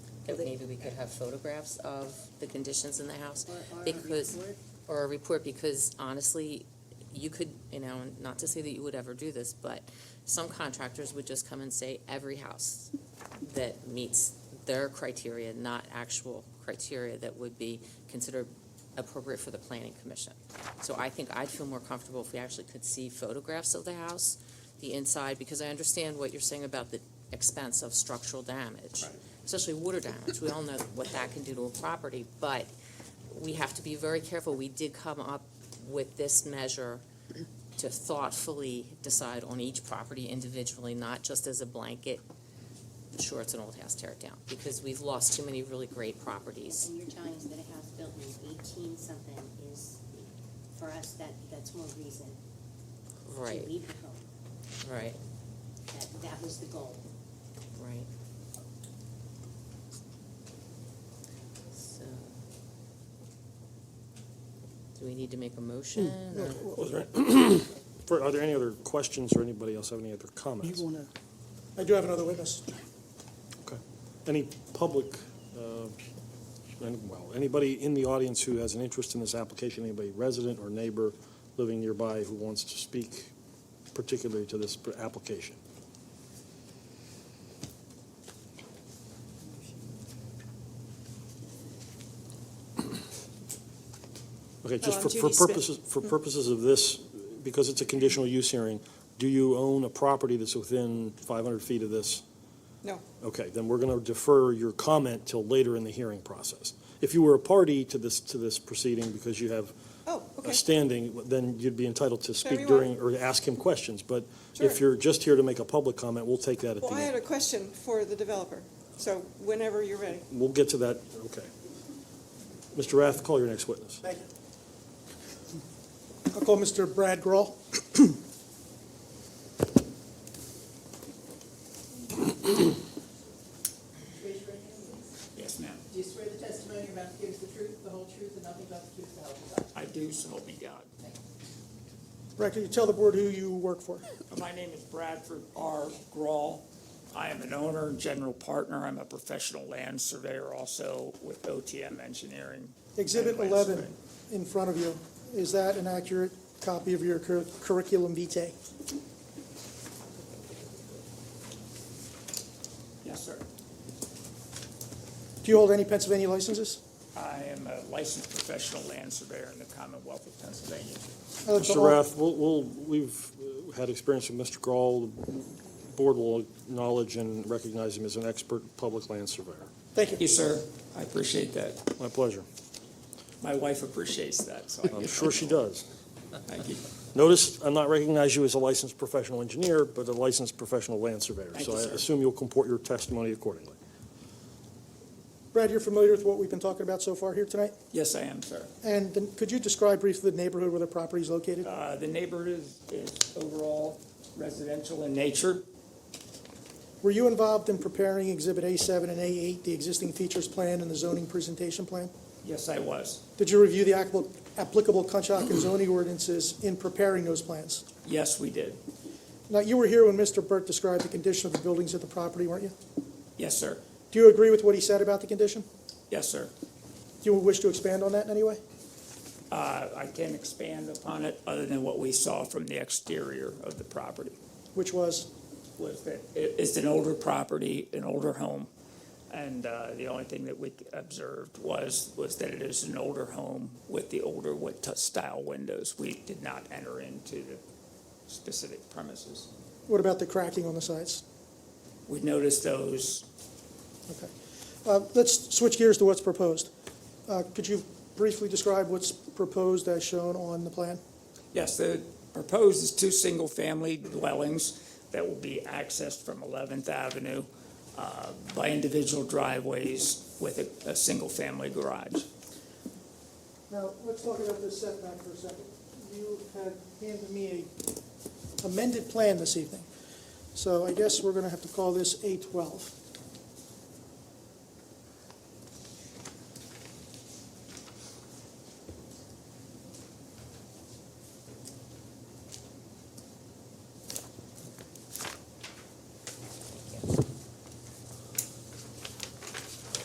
that maybe we could have photographs of the conditions in the house. Or- or a Because, report. or a report, because honestly, you could, you know, not to say that you would ever do this, but some contractors would just come and say, every house that meets their criteria, not actual criteria that would be considered appropriate for the planning commission. So I think I'd feel more comfortable if we actually could see photographs of the house, the inside, because I understand what you're saying about the expense of structural damage. Right. Especially water damage, we all know what that can do to a property, but we have to be very careful. We did come up with this measure to thoughtfully decide on each property individually, not just as a blanket, sure, it's an old house, tear it down, because we've lost too many really great properties. And you're telling us that a house built in eighteen something is, for us, that, that's more reason to Right, leave the home. right, That, that was the goal. right. So. Do we need to make a motion? or- Was there- for- Are there any other questions or anybody else have any other comments? You want to, I do have another witness. Okay. Any public, uh, any- well, anybody in the audience who has an interest in this application, anybody resident or neighbor living nearby who wants to speak particularly to this pr- application? Okay, just Oh, I'm for- for Judy Smith. purposes, for purposes of this, because it's a conditional use hearing, do you own a property that's within 500 feet of this? No. Okay, then we're going to defer your comment till later in the hearing process. If you were a party to this, to this proceeding because you have Oh, a okay. standing, then you'd be entitled to speak you during, or to ask him questions. But if Sure. you're just here to make a public comment, we'll take that at Well, the I had end. a question for the developer, so whenever you're ready. We'll get to that, okay. Mr. Rath, call your next witness. Thank you. I'll call Mr. Brad Grohl. Raise your right hand, please. Yes, ma'am. Do you swear the testimony you're about to give is the truth, the whole truth, and nothing but the truth, so help you God? I do, so help me God. Brad, can you tell the board who you work for? My name is Bradford R. Grawl. I am an owner and general partner. I'm a professional land surveyor also with OTM Engineering. Exhibit and land 11 surveying. in front of you, is that an accurate copy of your cur- curriculum vitae? Yes, sir. Do you hold any Pennsylvania licenses? I am a licensed professional land surveyor in the Commonwealth of Pennsylvania. I'd like to Mr. al- Rath, we'll, we'll, we've uh, had experience with Mr. Grawl. The Board will acknowledge and recognize him as an expert public land surveyor. Thank Thank you, you. sir. I appreciate that. My pleasure. My wife appreciates that, so I I'm give Oh, sure her- she does. Thank you. Notice, I'm not recognizing you as a licensed professional engineer, but a licensed professional land surveyor. Thank So you, I sir. assume you'll comport your testimony accordingly. Brad, you're familiar with what we've been talking about so far here tonight? Yes, I am, sir. And then could you describe briefly the neighborhood where the property is located? Uh, The neighborhood is is overall residential in nature. Were you involved in preparing Exhibit A7 and A8, the existing features plan and the zoning presentation plan? Yes, I was. Did you review the appli- applicable Conshohocken zoning ordinances in preparing those plans? Yes, we did. Now, you were here when Mr. Burt described the condition of the buildings at the property, weren't you? Yes, sir. Do you agree with what he said about the condition? Yes, sir. Do you wish to expand on that in any way? Uh, I can't expand upon it other than what we saw from the exterior of the property. Which was, Was that it- it's an older property, an older home, and uh, the only thing that we observed was was that it is an older home with the older wit- style windows. We did not enter into the specific premises. what about the cracking on the sides? We noticed those. Okay. Uh, Let's switch gears to what's proposed. Uh, Could you briefly describe what's proposed as shown on the plan? Yes, the proposed is two single family dwellings that will be accessed from Eleventh Avenue. uh, by individual driveways with a, a single-family garage. Now, let's talk about this setback for a second. You had handed me a amended plan this evening, so I guess we're going to have to call this A12.